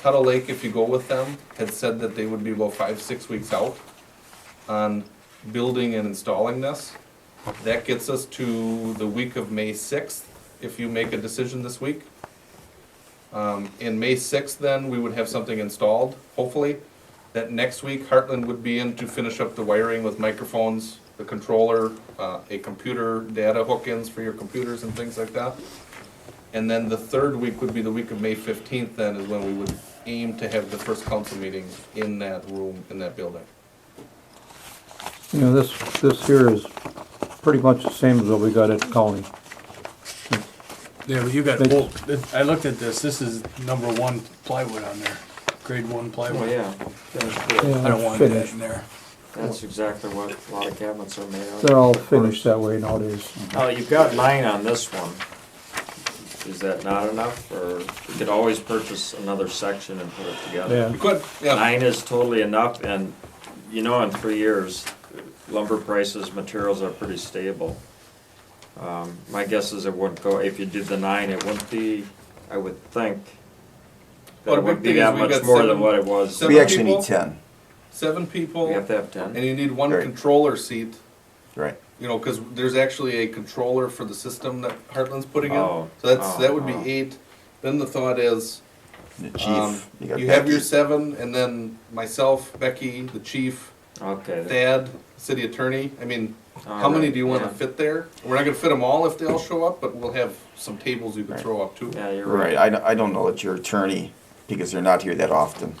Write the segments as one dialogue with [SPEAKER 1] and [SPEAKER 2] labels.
[SPEAKER 1] Tuttle Lake, if you go with them, had said that they would be about five, six weeks out on building and installing this. That gets us to the week of May sixth, if you make a decision this week. Um, in May sixth, then, we would have something installed, hopefully. That next week, Heartland would be in to finish up the wiring with microphones, the controller, uh, a computer, data hook-ins for your computers and things like that. And then the third week would be the week of May fifteenth, then, is when we would aim to have the first council meeting in that room, in that building.
[SPEAKER 2] You know, this, this here is pretty much the same as what we got at Colony.
[SPEAKER 3] Yeah, but you got,
[SPEAKER 2] Thank you.
[SPEAKER 3] well, it- I looked at this, this is number one plywood on there, grade one
[SPEAKER 4] Oh,
[SPEAKER 3] plywood.
[SPEAKER 4] yeah, that's good.
[SPEAKER 3] I don't want that
[SPEAKER 2] Finished.
[SPEAKER 3] in there.
[SPEAKER 4] That's exactly what a lot of cabinets are made of.
[SPEAKER 2] They're all finished that way nowadays.
[SPEAKER 4] Uh, you've got nine on this one. Is that not enough, or you could always purchase another section and put it together?
[SPEAKER 2] Yeah,
[SPEAKER 1] We could, yeah,
[SPEAKER 4] Nine is totally enough, and you know, in three years, lumber prices, materials are pretty stable. Um, my guess is it wouldn't go, if you did the nine, it wouldn't be, I would think,
[SPEAKER 1] Well, the
[SPEAKER 4] that it
[SPEAKER 1] big
[SPEAKER 4] wouldn't
[SPEAKER 1] thing
[SPEAKER 4] be
[SPEAKER 1] is
[SPEAKER 4] that
[SPEAKER 1] we
[SPEAKER 4] much
[SPEAKER 1] got
[SPEAKER 4] more than
[SPEAKER 1] seven-
[SPEAKER 4] what it was.
[SPEAKER 1] seven-
[SPEAKER 5] We actually
[SPEAKER 1] people?
[SPEAKER 5] need ten,
[SPEAKER 1] seven
[SPEAKER 4] We
[SPEAKER 1] people,
[SPEAKER 4] have to have ten.
[SPEAKER 1] and you need one
[SPEAKER 5] Right.
[SPEAKER 1] controller seat,
[SPEAKER 5] right?
[SPEAKER 1] you know, cause there's actually a controller for the system that Heartland's putting in. So
[SPEAKER 4] Oh,
[SPEAKER 1] that's,
[SPEAKER 4] oh,
[SPEAKER 1] that would be
[SPEAKER 4] oh.
[SPEAKER 1] eight. Then the thought is,
[SPEAKER 5] The
[SPEAKER 1] um,
[SPEAKER 5] chief, you got
[SPEAKER 1] you have your
[SPEAKER 5] Becky.
[SPEAKER 1] seven, and then myself, Becky, the chief,
[SPEAKER 4] Okay. that-
[SPEAKER 1] Thad, city attorney. I mean, how
[SPEAKER 4] all
[SPEAKER 1] many
[SPEAKER 4] right,
[SPEAKER 1] do you wanna
[SPEAKER 4] yeah.
[SPEAKER 1] fit there? We're not gonna fit them all if they all show up, but we'll have some tables you can
[SPEAKER 5] Right.
[SPEAKER 1] throw up too.
[SPEAKER 4] Yeah, you're
[SPEAKER 5] Right, I, don't- I don't know that your attorney, because they're not here that often,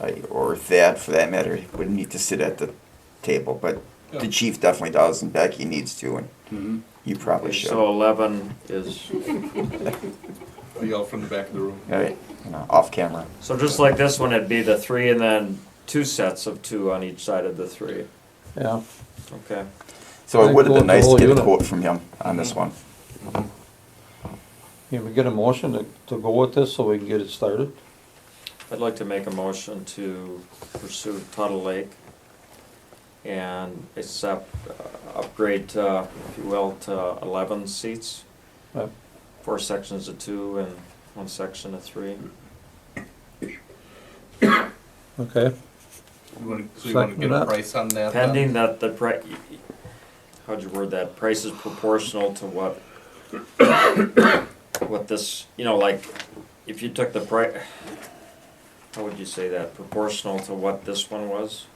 [SPEAKER 5] I- or that, for that matter, would need to sit at the table, but
[SPEAKER 1] Yeah. Mm-hmm.
[SPEAKER 5] the chief definitely does, and Becky needs to, and you probably
[SPEAKER 4] Okay,
[SPEAKER 5] should.
[SPEAKER 4] So
[SPEAKER 5] All
[SPEAKER 4] eleven is,
[SPEAKER 1] Yell from the back of the room.
[SPEAKER 5] right, you know, off camera.
[SPEAKER 4] so just like this one, it'd be the three and then two sets of two on each side of the three.
[SPEAKER 2] yeah.
[SPEAKER 4] Okay.
[SPEAKER 5] So
[SPEAKER 2] I
[SPEAKER 5] it would have
[SPEAKER 2] think
[SPEAKER 5] been
[SPEAKER 2] the
[SPEAKER 5] nice
[SPEAKER 2] whole
[SPEAKER 5] to get a
[SPEAKER 2] unit.
[SPEAKER 5] quote from him on this one.
[SPEAKER 2] Can we get a motion to, to go with this so we can get it started?
[SPEAKER 4] I'd like to make a motion to pursue Tuttle Lake and accept, uh, upgrade, uh, if you will, to eleven seats.
[SPEAKER 2] Yep.
[SPEAKER 4] Four sections of two and one section of three.
[SPEAKER 2] Okay,
[SPEAKER 1] You wanna- So you wanna
[SPEAKER 2] Second
[SPEAKER 1] get a
[SPEAKER 2] that.
[SPEAKER 1] price on that? uh? then?
[SPEAKER 4] Pending that the pri, how'd you word that, price is proportional to what, what this, you know, like, if you took the pri, how would you say that, proportional to what this one was?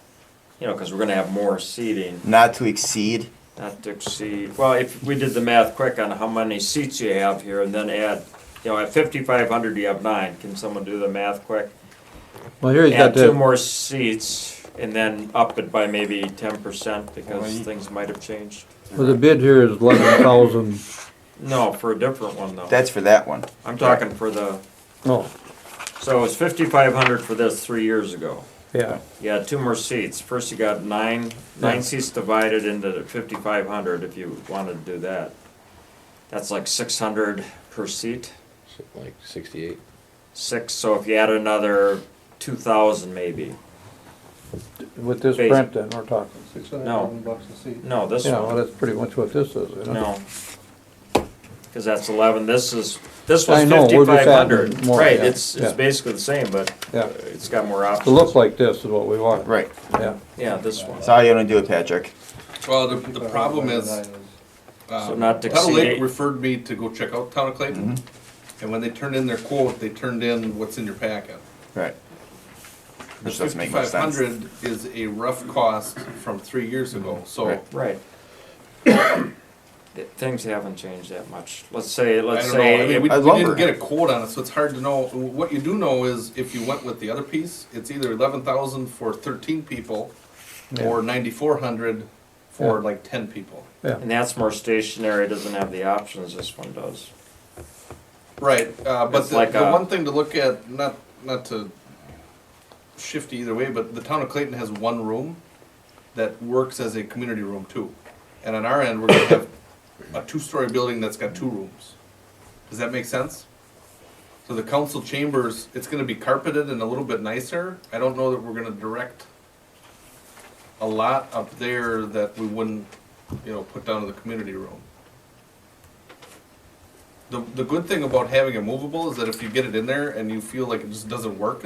[SPEAKER 4] You know, cause we're gonna have more seating,
[SPEAKER 5] Not to exceed,
[SPEAKER 4] not to exceed, well, if we did the math quick on how many seats you have here and then add, you know, at fifty-five hundred, you have nine, can someone do the math quick?
[SPEAKER 2] well, here you got
[SPEAKER 4] Add two
[SPEAKER 2] that,
[SPEAKER 4] more seats and then up it by maybe ten percent because things might have changed.
[SPEAKER 2] well, the bid here is eleven thousand,
[SPEAKER 4] No, for a different one though.
[SPEAKER 5] that's for that one.
[SPEAKER 4] I'm talking for the,
[SPEAKER 2] oh,
[SPEAKER 4] so it was fifty-five hundred for this three years ago.
[SPEAKER 2] yeah,
[SPEAKER 4] Yeah, two more seats. First you got nine, nine seats divided into fifty-five hundred if you wanted to do that. That's like six hundred per seat,
[SPEAKER 6] like 68.
[SPEAKER 4] six, so if you add another two thousand maybe.
[SPEAKER 2] with this
[SPEAKER 4] Base.
[SPEAKER 2] print then, we're talking.
[SPEAKER 4] No.
[SPEAKER 2] bucks a seat.
[SPEAKER 4] No, this
[SPEAKER 2] Yeah, well,
[SPEAKER 4] one,
[SPEAKER 2] that's pretty much what this is, you know?
[SPEAKER 4] no. Cause that's eleven, this is, this was
[SPEAKER 2] I know, we're just
[SPEAKER 4] fifty-five
[SPEAKER 2] adding
[SPEAKER 4] hundred.
[SPEAKER 2] more,
[SPEAKER 4] Right,
[SPEAKER 2] yeah,
[SPEAKER 4] it's,
[SPEAKER 2] yeah.
[SPEAKER 4] it's basically the same, but
[SPEAKER 2] Yeah.
[SPEAKER 4] uh, it's got more
[SPEAKER 2] To
[SPEAKER 4] options.
[SPEAKER 2] look like this is what we want.
[SPEAKER 5] Right,
[SPEAKER 2] Yeah,
[SPEAKER 4] Yeah, this one.
[SPEAKER 5] that's all you want to do it, Patrick.
[SPEAKER 1] Well, the, the problem is, uh,
[SPEAKER 4] So not to
[SPEAKER 1] Tuttle Lake
[SPEAKER 4] exceed-
[SPEAKER 1] referred me to go check out Town of Clayton. And when they turned in their quote, they turned in what's in your packet.
[SPEAKER 5] Right.
[SPEAKER 1] The
[SPEAKER 5] Which doesn't make much
[SPEAKER 1] fifty-five
[SPEAKER 5] sense.
[SPEAKER 1] hundred is a rough cost from three years ago, so
[SPEAKER 5] Right.
[SPEAKER 4] Right. Th- Things haven't changed that much. Let's say,
[SPEAKER 1] I
[SPEAKER 4] let's
[SPEAKER 1] don't know, I
[SPEAKER 4] say,
[SPEAKER 1] mean, we,
[SPEAKER 5] I
[SPEAKER 1] we didn't
[SPEAKER 5] lumber.
[SPEAKER 1] get a quote on it, so it's hard to know. What you do know is if you went with the other piece, it's either eleven thousand for thirteen people or ninety-four hundred for
[SPEAKER 2] Yeah.
[SPEAKER 1] like ten people.
[SPEAKER 2] yeah.
[SPEAKER 4] and that's more stationary, doesn't have the options this one does.
[SPEAKER 1] Right, uh, but
[SPEAKER 4] It's
[SPEAKER 1] the,
[SPEAKER 4] like
[SPEAKER 1] the
[SPEAKER 4] a-
[SPEAKER 1] one thing to look at, not, not to shift either way, but the town of Clayton has one room that works as a community room too. And on our end, we're gonna have a two-story building that's got two rooms. Does that make sense? So the council chambers, it's gonna be carpeted and a little bit nicer. I don't know that we're gonna direct a lot up there that we wouldn't, you know, put down to the community room. The, the good thing about having a movable is that if you get it in there and you feel like it just doesn't work